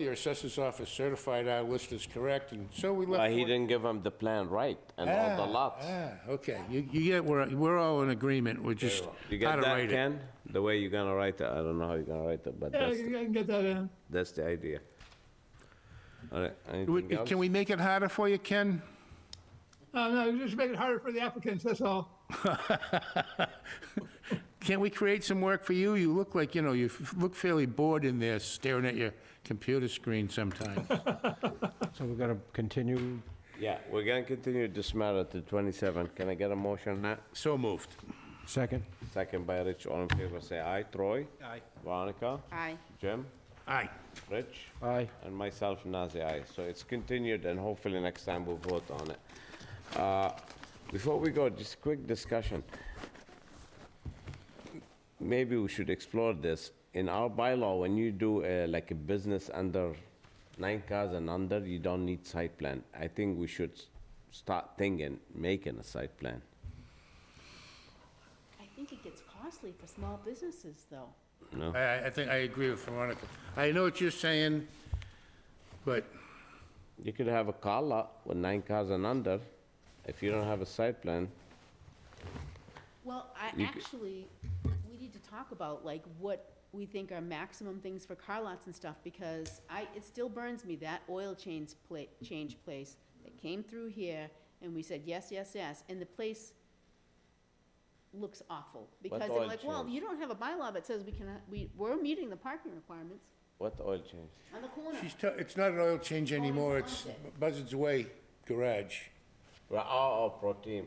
Your assessor's office certified our list is correct, and so we left. Why he one- didn't give him the plan right and all the Ah, lots. ah, Okay, you, you get, we're, we're all in agreement, we're just You how got to that, write it. Ken? The way you're gonna write it, I don't know how you're gonna write it, but that's, can get that in. that's the idea. All right, Would- anything else? Can we make it harder for you, Ken? No, Uh, no, just make it harder for the applicants, that's all. Can't we create some work for you? You look like, you know, you f- look fairly bored in there staring at your computer screen sometimes. So we're gonna continue, Yeah, we're gonna continue this matter to 27. Can I get a motion on that? So moved. second? Second by Rich, all in favor, say aye. Troy? Aye. Veronica? Aye. Jim? Aye. Rich? Aye. And myself, Nazir, aye. So it's continued, and hopefully next time we'll vote on it. Uh, Before we go, just quick discussion. Maybe we should explore this. In our bylaw, when you do uh, like a business under nine cars and under, you don't need site plan. I think we should s- start thinking, making a site plan. I think it gets costly for small businesses, though. Oh. I- I, I think, I agree with Veronica. I know what you're saying, but You could have a car lot with nine cars and under. If you don't have a site plan, Well, I You c- actually, we need to talk about like what we think are maximum things for car lots and stuff, because I, it still burns me, that oil change pla- change place that came through here, and we said, yes, yes, yes, and the place looks awful. Because oil they're like, well, change? you don't have a bylaw that says we can, we, we're meeting the parking requirements what oil change? on the corner. she's, t- it's not an oil change anymore, it's Onset. Buzzards Way Garage. Right, oh, oh, pro team.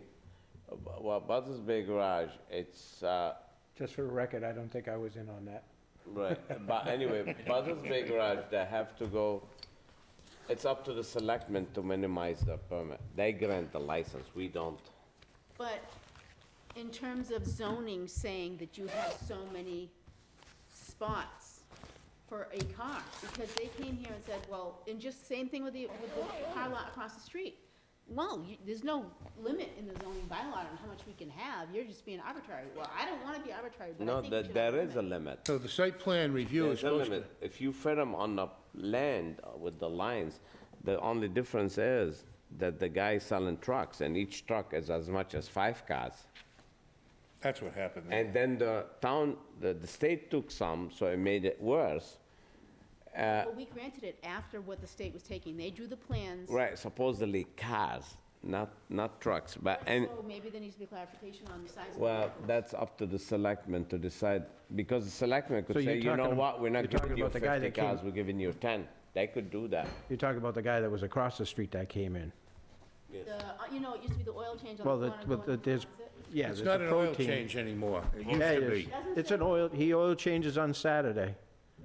Uh, bu- Well, Buzzards Bay Garage, it's, uh, Just for the record, I don't think I was in on that. right, but anyway, Buzzards Bay Garage, they have to go, it's up to the selectmen to minimize the permit. They grant the license, we don't. But in terms of zoning, saying that you have so many spots for a car, because they came here and said, well, and just same thing with the, with the car lot across the street. Well, you, there's no limit in the zoning bylaw on how much we can have, you're just being arbitrary. Well, I don't wanna be arbitrary, but I No, think we th- should have there is a limit. So the site plan review is There's a supposed to. limit. If you fit them on the land uh, with the lines, the only difference is that the guy selling trucks, and each truck is as much as five cars. That's what happened. there. And then the town, the, the state took some, so it made it worse. Well, we granted it after what the state was taking, they drew the plans. Right, supposedly cars, not, not trucks, but, and, So maybe there needs to be clarification on the size of the well, vehicle. that's up to the selectmen to decide, because the selectmen So could you're say, you know talking- what, we're you're not talking giving you about the guy fifty that came- cars, we're giving you ten. They could do that. You're talking about the guy that was across the street that came in. The, uh, you know, it used to be the oil change on the Well, corner. the, but the- going there's, towards it. yeah, It's there's not a an oil protein. change anymore. It Yeah, used to it is. be. It's an oil, he oil changes on Saturday.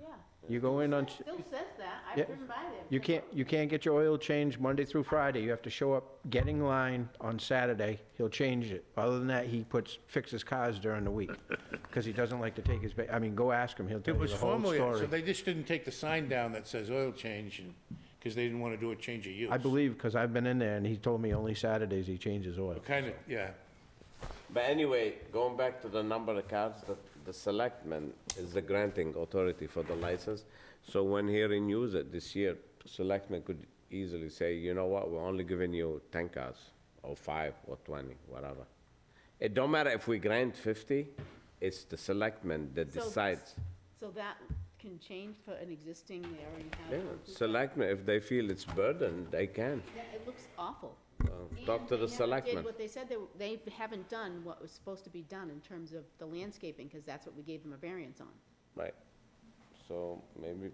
Yeah. You go in on, s- Still says that, Yeah. I've driven by there. you can't, you can't get your oil changed Monday through Friday. You have to show up, getting line on Saturday, he'll change it. Other than that, he puts, fixes cars during the week, because he doesn't like to take his, ba- I mean, go ask him, he'll tell It you was the whole formerly, so story. they just didn't take the sign down that says oil change and, because they didn't want to do a change of use. I believe, because I've been in there, and he told me only Saturdays he changes oil. Kind of, yeah. But anyway, going back to the number of cars, the, the selectman is the granting authority for the license. So when he renews it this year, selectmen could easily say, you know what, we're only giving you ten cars, or five, or twenty, whatever. It don't matter if we grant fifty, it's the selectman that So- decides. So that can change for an existing, they already have. Yeah, one who's got- Selectmen, if they feel it's burden, they can. Yeah, It looks awful. And talk to they the never selectmen. Did what they said, they, w- they haven't done what was supposed to be done in terms of the landscaping, because that's what we gave them a variance on. Right. So maybe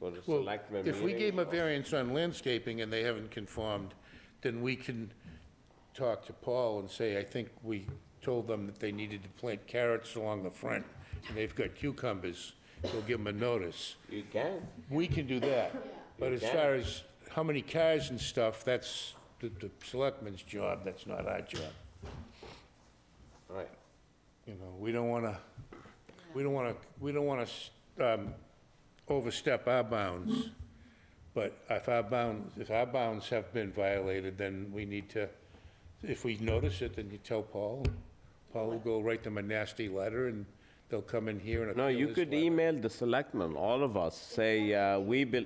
go to Well, selectmen if we meeting gave them a or- variance on landscaping and they haven't conformed, then we can talk to Paul and say, I think we told them that they needed to plant carrots along the front, and they've got cucumbers, we'll give them a notice. You can. We can do that, but as far as how many cars and stuff, that's the, the selectmen's job, that's not our job. Right. You know, we don't wanna, we don't wanna, we don't wanna, um, overstep our bounds. But if our bounds, if our bounds have been violated, then we need to, if we notice it, then you tell Paul. Paul will go write them a nasty letter and they'll come in here and No, appeal you his could letter. email the selectmen, all of us, say, uh, we, bel-